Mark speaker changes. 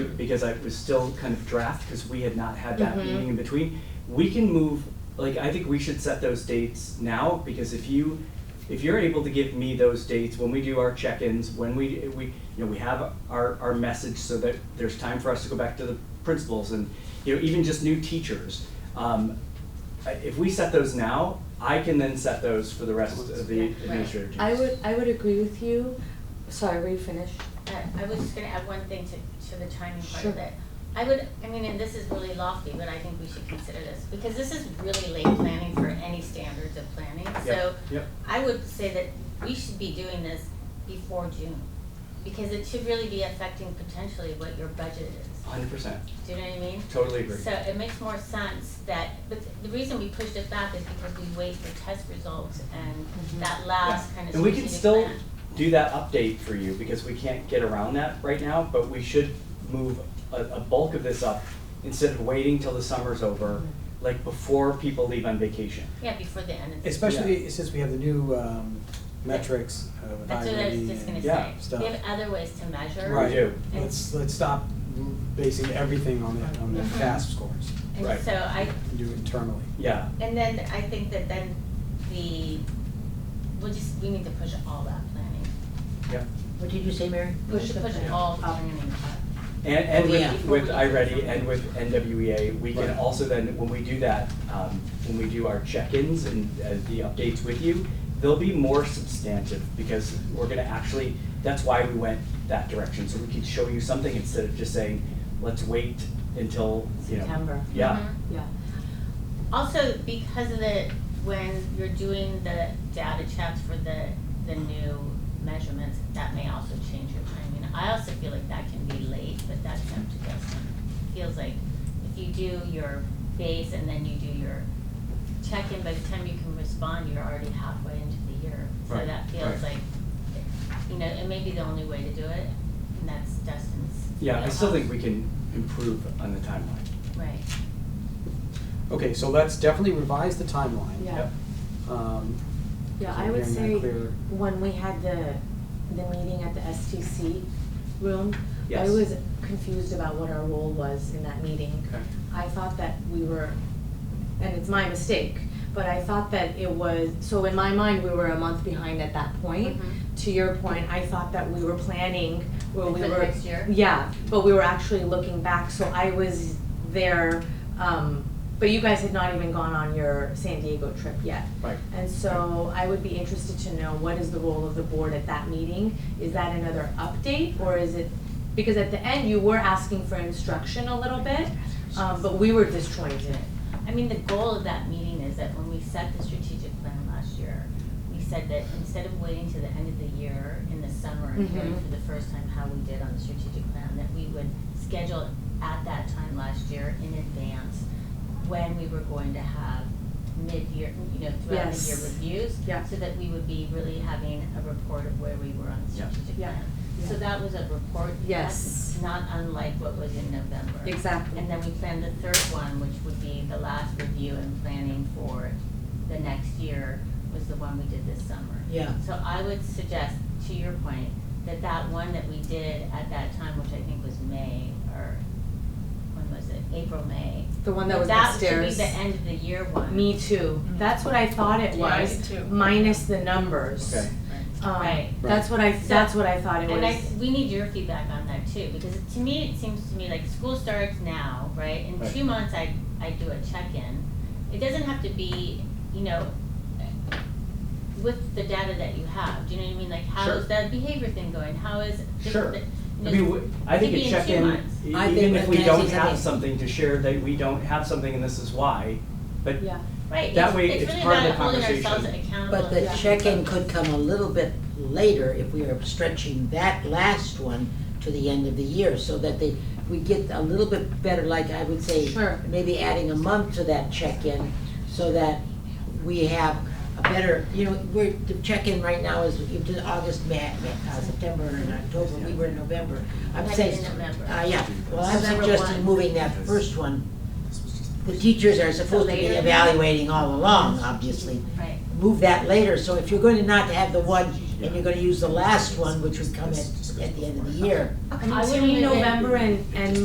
Speaker 1: because I was still kind of draft, because we had not had that
Speaker 2: Mhm.
Speaker 1: meeting in between. We can move, like, I think we should set those dates now, because if you, if you're able to give me those dates, when we do our check-ins, when we, we, you know, we have our, our message so that there's time for us to go back to the principals and, you know, even just new teachers. Um, I- if we set those now, I can then set those for the rest of the
Speaker 2: Right.
Speaker 1: administrative teams.
Speaker 2: I would, I would agree with you. Sorry, were you finished?
Speaker 3: I I was just gonna add one thing to, to the timing part
Speaker 2: Sure.
Speaker 3: of it. I would, I mean, and this is really lofty, but I think we should consider this, because this is really late planning for any standards of planning, so
Speaker 1: Yep, yep.
Speaker 3: I would say that we should be doing this before June, because it should really be affecting potentially what your budget is.
Speaker 1: Hundred percent,
Speaker 3: Do you know what I mean?
Speaker 1: totally agree.
Speaker 3: So it makes more sense that, but the reason we pushed it back is because we wait for test results
Speaker 2: Mhm.
Speaker 3: and that last
Speaker 1: Mm-hmm. Yeah.
Speaker 3: kind of
Speaker 1: And we can
Speaker 3: strategic
Speaker 1: still
Speaker 3: plan.
Speaker 1: do that update for you, because we can't get around that right now, but we should move a, a bulk of this up instead of waiting till the summer's over, like before people leave on vacation.
Speaker 3: Yeah, before the end of the.
Speaker 4: Especially since we have the new um, metrics uh, with
Speaker 3: That's what I was
Speaker 4: IRB
Speaker 3: just gonna
Speaker 4: and
Speaker 3: say.
Speaker 1: Yeah,
Speaker 4: stuff.
Speaker 3: We have other ways to measure.
Speaker 1: We do.
Speaker 4: Right, let's, let's stop basing everything on the, on the
Speaker 3: Mhm.
Speaker 4: fast scores,
Speaker 3: And
Speaker 1: Right.
Speaker 3: so I,
Speaker 4: and do it internally.
Speaker 1: Yeah,
Speaker 3: and then I think that then the, we'll just, we need to push all that planning.
Speaker 1: yeah.
Speaker 5: What did you say, Mary? Oh.
Speaker 3: Push, push all planning up.
Speaker 1: And, and
Speaker 5: Yeah.
Speaker 1: with, with iReady and with NWEA, we can
Speaker 4: Right.
Speaker 1: also then, when we do that, um, when we do our check-ins and, and the updates with you, they'll be more substantive, because we're gonna actually, that's why we went that direction, so we can show you something instead of just saying, let's wait until, you know.
Speaker 5: September.
Speaker 1: Yeah,
Speaker 3: Mhm.
Speaker 5: Yeah.
Speaker 3: Also, because of the, when you're doing the data checks for the, the new measurements, that may also change your timing. I also feel like that can be late, but that's up to Dustin. Feels like if you do your base and then you do your check-in, by the time you can respond, you're already halfway into the year. So
Speaker 1: Right,
Speaker 3: that feels
Speaker 1: right.
Speaker 3: like, you know, it may be the only way to do it, and that's Dustin's.
Speaker 1: yeah, I still think we
Speaker 3: wheelhouse.
Speaker 1: can improve on the timeline.
Speaker 3: Right.
Speaker 4: Okay, so let's definitely revise the timeline.
Speaker 2: Yeah.
Speaker 1: Yep.
Speaker 4: Um,
Speaker 2: Yeah,
Speaker 4: so
Speaker 2: I would
Speaker 4: hearing that
Speaker 2: say
Speaker 4: clear.
Speaker 2: when we had the, the meeting at the STC room, I
Speaker 1: Yes.
Speaker 2: was confused about what our role was in that meeting.
Speaker 1: Okay.
Speaker 2: I thought that we were, and it's my mistake, but I thought that it was, so in my mind, we were a month behind at that point.
Speaker 3: Mhm.
Speaker 2: To your point, I thought that we were planning where
Speaker 3: For
Speaker 2: we
Speaker 3: the
Speaker 2: were.
Speaker 3: next year?
Speaker 2: Yeah, but we were actually looking back, so I was there, um, but you guys had not even gone on your San Diego trip yet.
Speaker 1: Right.
Speaker 2: And so I would be interested to know what is the role of the board at that meeting? Is that another update or is it, because at the end you were asking for instruction a little bit, um, but we were disjointed.
Speaker 3: I mean, the goal of that meeting is that when we set the strategic plan last year, we said that instead of waiting to the end of the year in the summer and hearing
Speaker 2: Mhm.
Speaker 3: for the first time how we did on the strategic plan, that we would schedule at that time last year in advance when we were going to have mid-year, you know, throughout the year
Speaker 2: Yes.
Speaker 3: reviews.
Speaker 2: Yeah.
Speaker 3: So that we would be really having a report of where we were on the
Speaker 1: Yeah.
Speaker 3: strategic
Speaker 2: Yeah.
Speaker 3: plan. So
Speaker 2: Yeah.
Speaker 3: that was a report.
Speaker 2: Yes.
Speaker 3: That's not unlike what was in November.
Speaker 2: Exactly.
Speaker 3: And then we planned the third one, which would be the last review and planning for the next year, was the one we did this summer.
Speaker 5: Yeah.
Speaker 3: So I would suggest, to your point, that that one that we did at that time, which I think was May, or when was it, April, May?
Speaker 2: The one that was upstairs.
Speaker 3: That should be the end of the year one.
Speaker 2: Me too. That's what I thought it
Speaker 3: Yeah, I
Speaker 2: was, minus the numbers.
Speaker 1: Okay.
Speaker 2: Um,
Speaker 3: Right.
Speaker 2: That's what I, that's what I thought it was.
Speaker 3: And I, we need your feedback on that too, because to me, it seems to me like school starts now, right? In
Speaker 1: Right.
Speaker 3: two months, I, I do a check-in. It doesn't have to be, you know, with the data that you have, do you know what I mean? Like, how
Speaker 1: Sure.
Speaker 3: is that behavior thing going? How is this,
Speaker 1: Sure.
Speaker 3: the- you
Speaker 1: I
Speaker 3: know,
Speaker 1: mean, w- I think
Speaker 3: could
Speaker 1: a
Speaker 3: be in two
Speaker 1: check-in,
Speaker 3: months.
Speaker 1: e-
Speaker 5: I
Speaker 1: even
Speaker 5: think
Speaker 1: if
Speaker 5: that
Speaker 1: we don't
Speaker 5: Nancy's
Speaker 1: have
Speaker 5: idea-
Speaker 1: something to share, that we don't have something and this is why, but
Speaker 2: Yeah.
Speaker 3: Right,
Speaker 1: that
Speaker 3: it's,
Speaker 1: way
Speaker 3: it's
Speaker 1: it's
Speaker 3: really
Speaker 1: part of
Speaker 3: about
Speaker 1: the
Speaker 3: holding ourselves
Speaker 1: conversation.
Speaker 3: accountable.
Speaker 5: But the
Speaker 3: and-
Speaker 5: check-in could come a little bit later if we are stretching that last one to the end of the year, so that they, we get a little bit better, like I would say,
Speaker 2: Sure.
Speaker 5: maybe adding a month to that check-in, so that we have a better, you know, we're, the check-in right now is, you did August, Ma- Ma- uh, September and October, we were in November. I'm
Speaker 3: Like
Speaker 5: saying,
Speaker 3: in November.
Speaker 5: uh, yeah, well, I'm
Speaker 3: November
Speaker 5: suggesting
Speaker 3: one.
Speaker 5: moving that first one. The teachers are supposed to be evaluating all along, obviously,
Speaker 3: Right.
Speaker 5: move that later, so if you're going to not have the one, and you're gonna use the last one, which would come at, at the end of the year.
Speaker 2: I mean,
Speaker 3: I
Speaker 2: to
Speaker 3: wouldn't
Speaker 2: me,
Speaker 3: even-
Speaker 2: November and, and